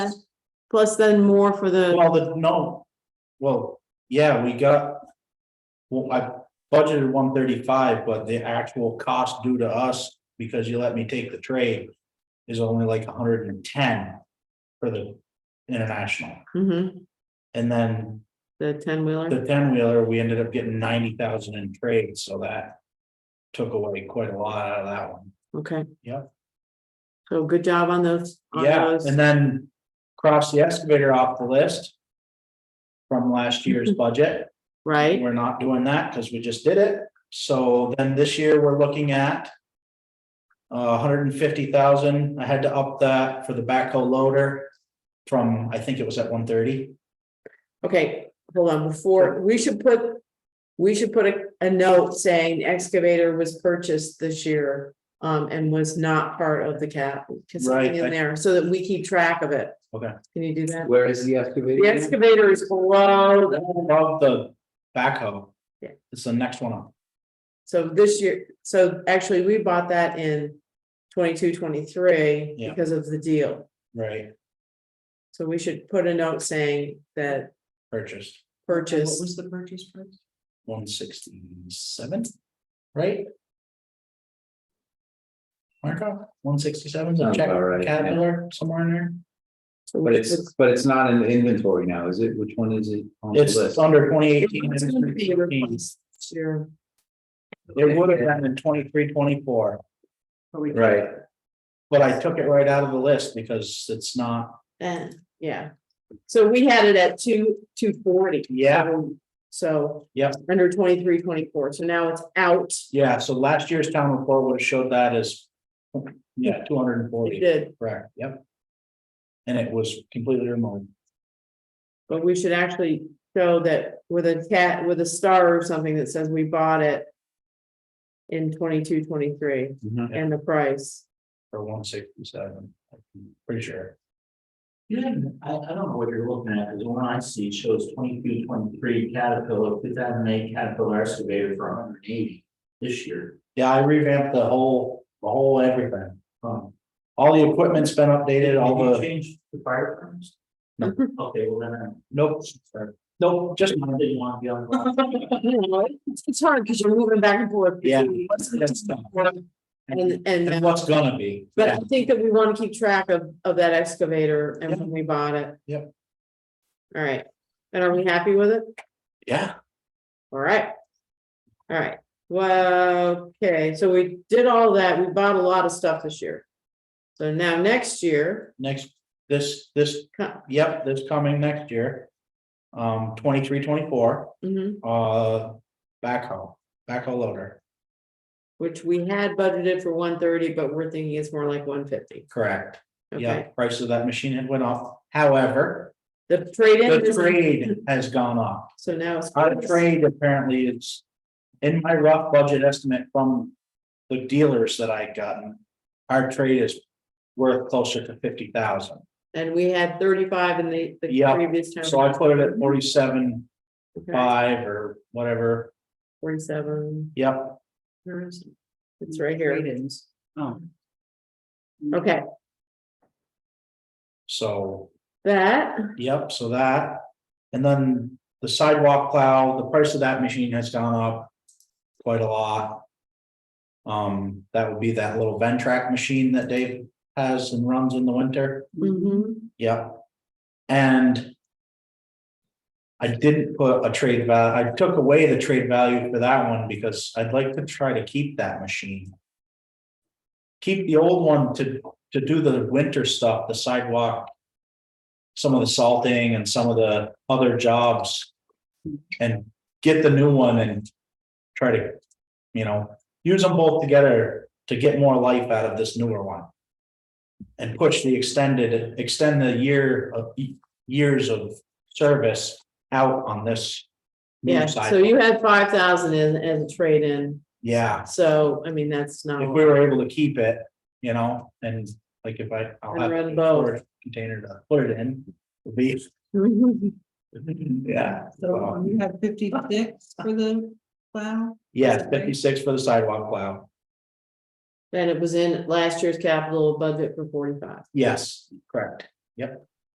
Plus then more for the, Well, the, no, well, yeah, we got. Well, I budgeted one thirty-five, but the actual cost due to us, because you let me take the trade. Is only like hundred and ten for the international, mhm, and then the ten wheeler. the ten wheeler, we ended up getting ninety thousand in trade, so that. Took away quite a lot out of that one. Okay. Yeah. So good job on those. on Yeah, those. and then cross the excavator off the list. From last year's budget. Right, We're not doing that because we just did it. So then this year, we're looking at. uh, hundred and fifty thousand. I had to up that for the backhoe loader. From, I think it was at one thirty. okay, hold on, before, we should put, we should put a, a note saying excavator was purchased this year. Um, and was not part of the cap, because something Right, in I- there, so that we keep track of it. Okay. Can you do that? Where is the excavator? The excavator is below, the- Above the backhoe. Yeah. It's the next one up. so this year, so actually, we bought that in twenty-two, twenty-three Yeah. because of the deal. right? So we should put a note saying that Purchased purchase, the purchase price? one sixty-seven, right? Marco, one sixty-seven, Sounds about right, yeah. Caterpillar, somewhere in there. But it's, but it's not in inventory now, is it? Which one is it? on the It's list? under twenty eighteen. It's gonna be replaced this year. It would have been in 23, 24, Right, but I took it right out of the list because it's not, And, yeah, so we had it at two, two forty. yeah, So. Yeah. Under twenty-three, twenty-four, so now it's out, yeah, so last year's town report would have showed that as. Yeah, two hundred and it forty, did, correct, yep. And it was completely removed, but we should actually show that with a cat, with a star or something that says we bought it. In twenty-two, twenty-three, Mm-hmm. Mhm. and the price, for one sixty-seven, pretty sure. Yeah, I, I don't know what you're looking at, because the one I see shows 22, 23 Caterpillar, two thousand eight Caterpillar excavator for hundred and eighty this year. Yeah, I revamped the whole, the whole everything. Um, All the equipment's been updated, all Did you the, Change the fire departments? No. Okay, well then, nope, nope, I just, didn't want to be on. the- it's hard because you're moving back and forth. yeah. uh, And, And and, what's gonna be. but yeah. I think that we want to keep track of, of that excavator and when we bought it. Yep. All right, and are we happy with it? Yeah, All right. All right, well, okay, so we did all that, we bought a lot of stuff this year. So now next year, next, this, this co- Yep, that's coming next year. Um, twenty-three, twenty-four, mhm, uh, backhoe, backhoe loader, which we had budgeted for one thirty, but we're thinking it's more like one fifty, correct. Yeah, okay? price of that machine had went off. However, The trade the in is, trade has gone up. so now it's. Our trade apparently is, in my rough budget estimate from the dealers that I gotten, our trade is worth closer to fifty thousand. And we had thirty-five in the, the Yeah, previous time. So I put it at forty-seven, Okay, five or whatever. Forty-seven, Yep, where is it? It's Mm, right here, Oh. okay, so. that, Yep, so that, and then the sidewalk plow, the price of that machine has gone up quite a lot. Um, that would be that little Ventrac machine that Dave has and runs in the winter, mhm, yep. And I didn't put a trade value, I took away the trade value for that one because I'd like to try to keep that machine. Keep the old one to, to do the winter stuff, the sidewalk some of the salting and some of the other jobs. And get the new one and try to, you know, use them both together to get more life out of this newer one. And push the extended, extend the year of, years of service out on this. new yeah, side. so you had five thousand in, as a trade-in. Yeah, So, I mean, that's not, if a lot. we were able to keep it, you know, and like if I. I'll And have run a both. storage Container to put it in, would be, yeah. So you have fifty-six for the plow? Yeah, fifty-six for the sidewalk plow, and it was in last year's capital budget for forty-five. yes, correct, yep.